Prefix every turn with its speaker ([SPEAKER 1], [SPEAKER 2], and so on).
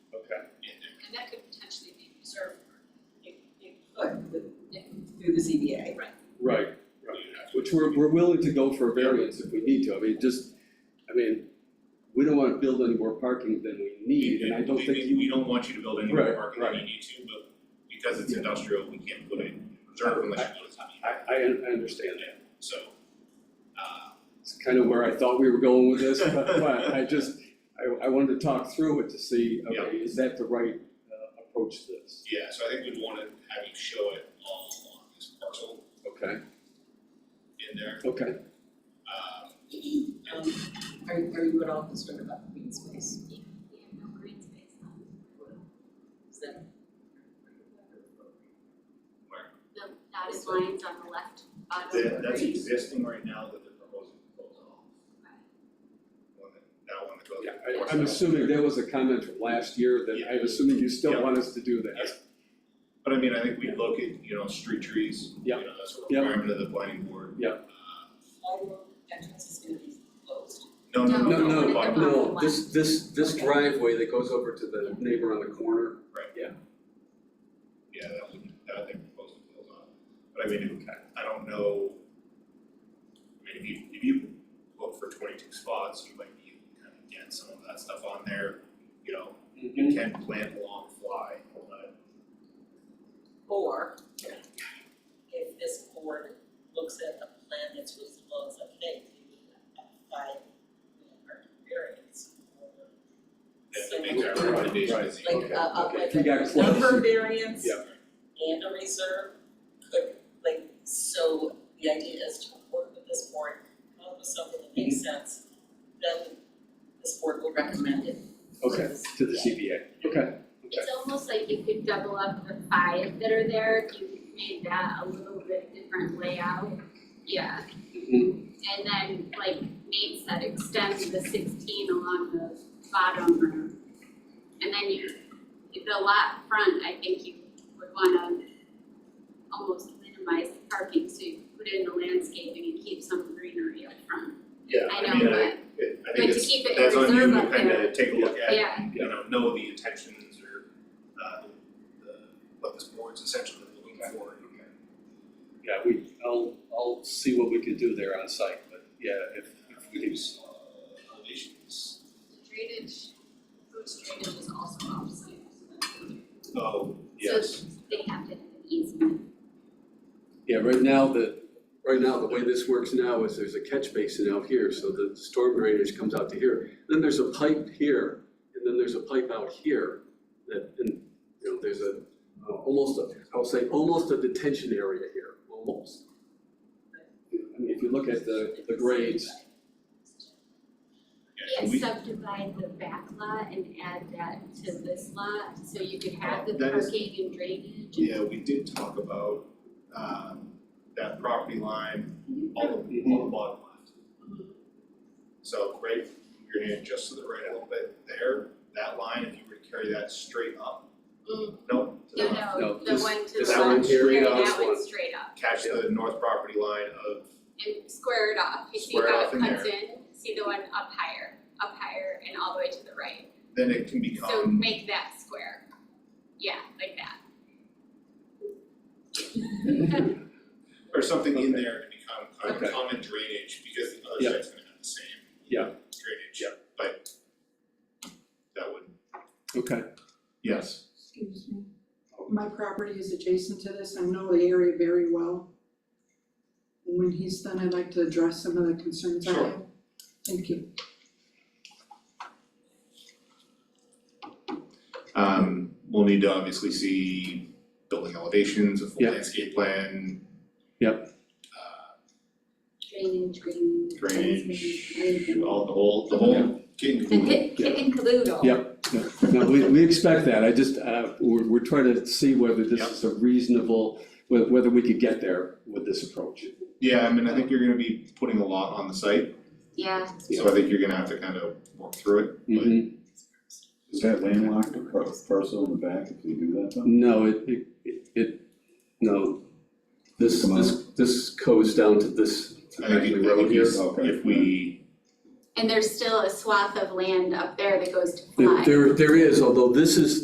[SPEAKER 1] and that could potentially be reserved for.
[SPEAKER 2] It could, with- through the ZBA.
[SPEAKER 3] Right, right, which we're, we're willing to go for a variance if we need to, I mean, just, I mean, we don't wanna build any more parking than we need, and I don't
[SPEAKER 4] We-
[SPEAKER 3] think
[SPEAKER 4] we-
[SPEAKER 3] you.
[SPEAKER 4] We don't want you to build any more
[SPEAKER 3] Right,
[SPEAKER 4] parking than
[SPEAKER 3] right.
[SPEAKER 4] you need to, but because it's
[SPEAKER 3] Yeah.
[SPEAKER 4] industrial, we can't put it in reserve unless you put it in.
[SPEAKER 3] I, I, I understand,
[SPEAKER 4] So, uh,
[SPEAKER 3] it's kind of where I thought we were going with this, but, but I just, I, I wanted to talk through it to see, okay, is that the right, uh, approach to this?
[SPEAKER 4] yeah, so I think we'd wanna have you show it all along this parcel
[SPEAKER 3] Okay,
[SPEAKER 4] in there,
[SPEAKER 3] okay,
[SPEAKER 4] um,
[SPEAKER 2] Um, are, are you at all concerned about the green space?
[SPEAKER 1] We have no green space um, on
[SPEAKER 2] Is that?
[SPEAKER 4] where.
[SPEAKER 1] the dotted lines on the left bottom.
[SPEAKER 4] That, that's existing right now that they're proposing to close off, one that, that one that goes.
[SPEAKER 3] yeah, I, I'm assuming that was a comment from last year, that I'm assuming you still want us to do that.
[SPEAKER 4] But I mean, I think we look at, you know, street trees,
[SPEAKER 3] Yeah.
[SPEAKER 4] you know, that's a
[SPEAKER 3] Yeah.
[SPEAKER 4] requirement of the planning board.
[SPEAKER 3] Yeah.
[SPEAKER 4] Uh,
[SPEAKER 2] Sidewalk entrance is gonna be closed.
[SPEAKER 4] No, no,
[SPEAKER 3] No,
[SPEAKER 4] no,
[SPEAKER 3] no,
[SPEAKER 4] no, but-
[SPEAKER 3] no, this, this, this
[SPEAKER 2] Okay.
[SPEAKER 3] driveway that goes over to the neighbor on the corner.
[SPEAKER 4] yeah, that would, that they're proposing to build on. But I mean, I don't know. I mean, if you, if you look for twenty-two spots, you might be able to kind of get some of that stuff on there, you know, you can plant along fly, but.
[SPEAKER 2] Or, if this board looks at a plan that's reasonable and says, hey, you need a five, you know, or variance. or
[SPEAKER 4] That would
[SPEAKER 2] so-
[SPEAKER 4] make that
[SPEAKER 3] Right,
[SPEAKER 4] recommendation
[SPEAKER 3] right.
[SPEAKER 4] as you
[SPEAKER 2] Like,
[SPEAKER 3] Okay,
[SPEAKER 2] uh, uh,
[SPEAKER 3] okay.
[SPEAKER 2] like
[SPEAKER 3] You got
[SPEAKER 2] a
[SPEAKER 3] close.
[SPEAKER 2] number variance
[SPEAKER 3] Yeah.
[SPEAKER 2] and a reserve could, like, so the idea is to work with this board, come up with something that
[SPEAKER 3] Mm-hmm.
[SPEAKER 2] makes sense, then this board will recommend it.
[SPEAKER 3] Okay, to the CBA, okay.
[SPEAKER 1] It's almost like you could double up the five that are there, if you made that a little bit different layout. Yeah,
[SPEAKER 3] Mm-hmm.
[SPEAKER 1] and then like Nate said, extend the sixteen along the bottom room. And then you, the lot front, I think you would wanna almost minimize the parking, so you put in the landscaping and keep some greenery up front.
[SPEAKER 4] Yeah,
[SPEAKER 1] I
[SPEAKER 4] I mean,
[SPEAKER 1] know,
[SPEAKER 4] I, it- I think
[SPEAKER 1] But to
[SPEAKER 4] it's,
[SPEAKER 1] keep it in
[SPEAKER 4] that's on you
[SPEAKER 1] reserve
[SPEAKER 4] to
[SPEAKER 1] up
[SPEAKER 4] kind
[SPEAKER 1] there,
[SPEAKER 4] of take a look at,
[SPEAKER 1] yeah,
[SPEAKER 4] you know, know the intentions or, uh, the, what this board's essentially looking for.
[SPEAKER 3] Yeah, we, I'll, I'll see what we can do there on site, but yeah, if, if we can.
[SPEAKER 4] Uh, Elevations.
[SPEAKER 1] The Drainage, Bruce drainage is also obviously, so that's the other-
[SPEAKER 4] Oh,
[SPEAKER 1] So they have to have an easement.
[SPEAKER 3] Yeah, right now, the, right now, the way this works now is there's a catch basin out here, so the storm drainage comes out to here. Then there's a pipe here, and then there's a pipe out here that, and, you know, there's a, uh, almost a, I will say, almost a detention area here, almost. I mean, if you look at the, the grades,
[SPEAKER 4] Yeah, we,
[SPEAKER 1] subdivide the back lot and add that to this lot, so you could have the
[SPEAKER 4] That is-
[SPEAKER 1] parking and drainage.
[SPEAKER 4] yeah, we did talk about, um, that property line,
[SPEAKER 1] Mm-hmm.
[SPEAKER 4] all the, all the bottom left. So right, your hand just to the right a little bit there, that line, if you were to carry that straight up,
[SPEAKER 1] Mm.
[SPEAKER 4] no, to the
[SPEAKER 1] No,
[SPEAKER 4] left.
[SPEAKER 3] No,
[SPEAKER 1] no, the
[SPEAKER 3] this-
[SPEAKER 1] one to the
[SPEAKER 3] this
[SPEAKER 4] one
[SPEAKER 1] left,
[SPEAKER 3] here,
[SPEAKER 1] and
[SPEAKER 3] yeah, this
[SPEAKER 1] that one
[SPEAKER 3] one.
[SPEAKER 1] straight up,
[SPEAKER 4] Catch the north property line of,
[SPEAKER 1] and square it off, you see
[SPEAKER 4] Square it
[SPEAKER 1] how
[SPEAKER 4] off
[SPEAKER 1] it
[SPEAKER 4] in
[SPEAKER 1] cuts in, see the one up higher, up higher and all the way to the right.
[SPEAKER 4] then it can
[SPEAKER 1] So
[SPEAKER 4] become,
[SPEAKER 1] make that square, yeah, like that.
[SPEAKER 4] or something in
[SPEAKER 3] Okay.
[SPEAKER 4] there to become kind
[SPEAKER 3] Okay.
[SPEAKER 4] of common drainage, because the
[SPEAKER 3] Yeah.
[SPEAKER 4] other side's gonna have the same
[SPEAKER 3] Yeah.
[SPEAKER 4] drainage,
[SPEAKER 3] Yeah.
[SPEAKER 4] but that would,
[SPEAKER 3] okay,
[SPEAKER 4] yes.
[SPEAKER 5] Excuse me. My property is adjacent to this. I know the area very well. And when he's done, I'd like to address some of the concerns I have. Thank you.
[SPEAKER 4] Um, we'll need to obviously see building elevations, a full
[SPEAKER 3] Yeah.
[SPEAKER 4] landscape plan.
[SPEAKER 3] Yep.
[SPEAKER 4] Uh,
[SPEAKER 1] Drainage, green.
[SPEAKER 4] drainage, all the whole, the whole kit
[SPEAKER 1] The
[SPEAKER 4] and caboodle.
[SPEAKER 1] kit, kit and caboodle.
[SPEAKER 3] Yeah. no, we, we expect that, I just, uh, we're, we're trying to see whether this is a reasonable, whe- whether we could get there with this approach.
[SPEAKER 4] Yeah, I mean, I think you're gonna be putting a lot on the site,
[SPEAKER 1] Yeah,
[SPEAKER 4] so I think you're gonna have to kind of work through it, but.
[SPEAKER 3] Mhm.
[SPEAKER 6] Is that landlocked or par- parcel in the back if you do that though?
[SPEAKER 3] No, it, it- it, it, no, this,
[SPEAKER 6] Come on.
[SPEAKER 3] this, this goes down to this, to
[SPEAKER 4] I think
[SPEAKER 3] actually
[SPEAKER 4] it- I
[SPEAKER 3] road
[SPEAKER 4] think
[SPEAKER 3] here.
[SPEAKER 4] it's-
[SPEAKER 6] Okay.
[SPEAKER 4] if we,
[SPEAKER 1] and there's still a swath of land up there that goes to
[SPEAKER 3] There-
[SPEAKER 1] fly.
[SPEAKER 3] There, there is, although this is,